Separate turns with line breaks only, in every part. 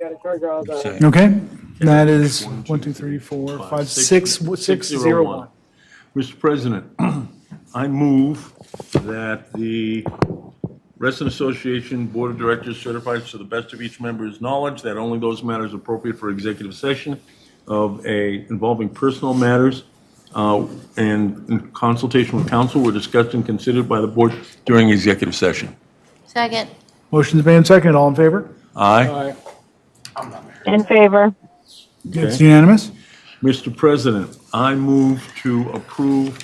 Got to charge all the.
Okay, that is one, two, three, four, five, six, six, zero, one.
Mr. President, I move that the Resident Association Board of Directors certifies to the best of each member's knowledge that only those matters appropriate for executive session of a, involving personal matters uh, and in consultation with counsel were discussed and considered by the board during executive session.
Second.
Motion's made and seconded, all in favor?
Aye.
In favor.
It's
Okay.
unanimous.
Mr. President, I move to approve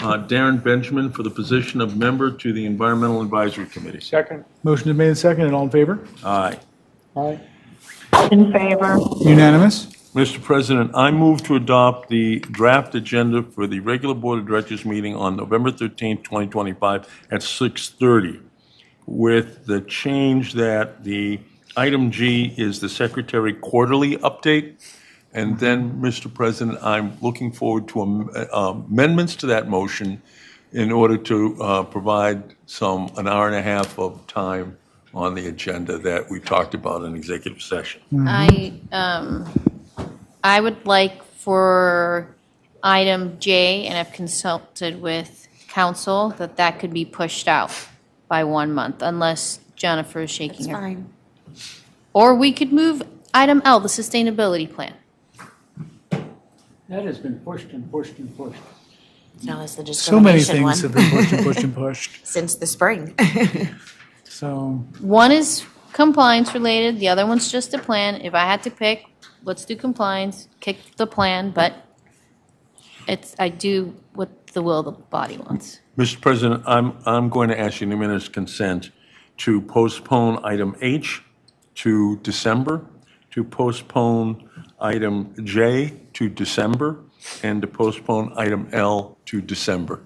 uh, Darren Benjamin for the position of member to the Environmental Advisory Committee.
Second.
Motion's made and seconded, all in favor?
Aye.
Aye.
In favor.
Unanimous.
Mr. President, I move to adopt the draft agenda for the regular Board of Directors meeting on November 13, 2025 at 6:30, with the change that the item G is the secretary quarterly update. And then, Mr. President, I'm looking forward to am- uh, amendments to that motion in order to uh, provide some, an hour and a half of time on the agenda that we talked about in executive session.
I, um, I would like for item J, and I've consulted with council, that that could be pushed out by one month, unless Jennifer is shaking her.
Fine.
Or we could move item L, the sustainability plan.
That has been pushed and pushed and pushed.
Now is the
So many
discrimination
things have
one
been pushed and pushed and pushed,
since the spring.
so.
One is compliance related, the other one's just a plan. If I had to pick, let's do compliance, kick the plan, but it's, I do what the will of the body wants.
Mr. President, I'm, I'm going to ask unanimous consent to postpone item H to December, to postpone item J to December, and to postpone item L to December.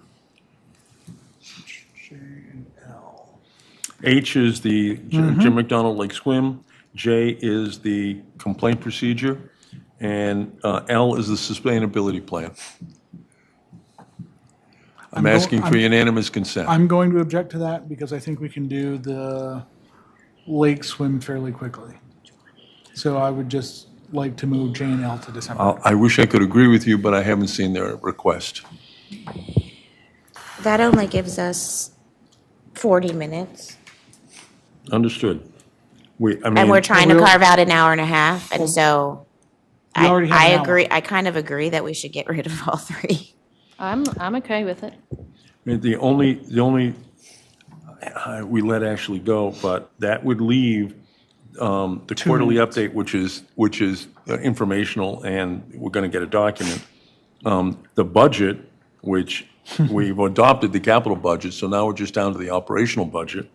H is the J- Jim McDonald Lake Swim, J is the complaint procedure, and uh, L is the sustainability plan. I'm
go-
asking for
I'm-
unanimous consent.
I'm going to object to that because I think we can do the lake swim fairly quickly. So I would just like to move J and L to December.
Uh, I wish I could agree with you, but I haven't seen their request.
That only gives us 40 minutes.
Understood. We, I mean.
And we're trying to
we'll-
carve out an hour and a half, and so
We
I,
already have
I
an hour.
agree, I kind of agree that we should get rid of all three.
I'm, I'm okay with it.
The only, the only, I- we let Ashley go, but that would leave um, the quarterly update, which is, which is uh, informational, and we're going to get a document. Um, The budget, which we've adopted the capital budget, so now we're just down to the operational budget,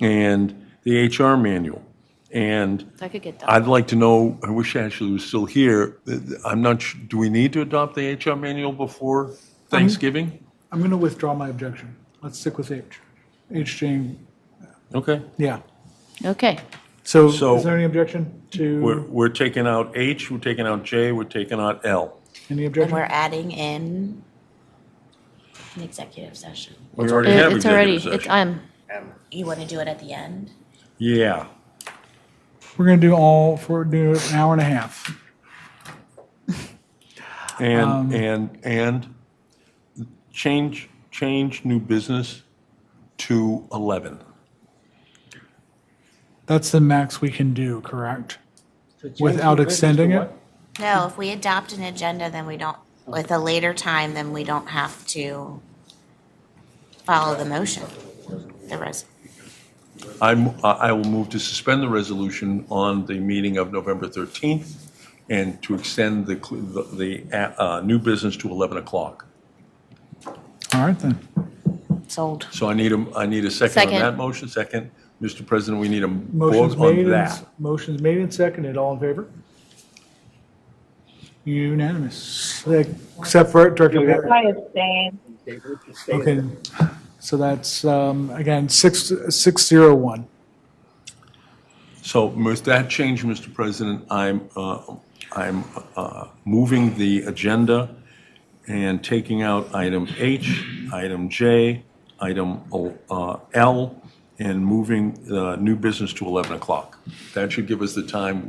and the HR manual. And
That could get done.
I'd like to know, I wish Ashley was still here, Uh, I'm not, su- do we need to adopt the HR manual before Thanksgiving?
I'm going to withdraw my objection. Let's stick with H. H, J,
Okay.
yeah.
Okay.
So
So-
is there any objection
We're,
to,
we're taking out H, we're taking out J, we're taking out L.
any
And we're
objection?
adding in an executive session.
We already have
It's already,
executive
it's,
session.
I'm,
You want to do it at the end?
Yeah.
We're going to do all, for, do an hour and a half. Um,
And, and, and change, change new business to 11.
That's the max we can do, correct?
To change
Without
the business to
extending it?
what?
No, if we adopt an agenda, then we don't, with a later time, then we don't have to follow the motion, the res,
I'm, I I will move to suspend the resolution on the meeting of November 13th and to extend the, cl- the, the, uh, new business to 11 o'clock.
All right, then.
sold.
So I need a, I need a second on
Second.
that motion. Second, Mr. President, we need a vote
Motion's made,
on
and
that.
s- motion's made and seconded, all in favor? Unanimous, except for Director Perry.
I abstain.
They would just stay there.
Okay, so that's, um, again, six, six zero one.
So with that change, Mr. President, I'm, uh, I'm uh, moving the agenda and taking out item H, item J, item uh, L, and moving uh, new business to 11 o'clock. That should give us the time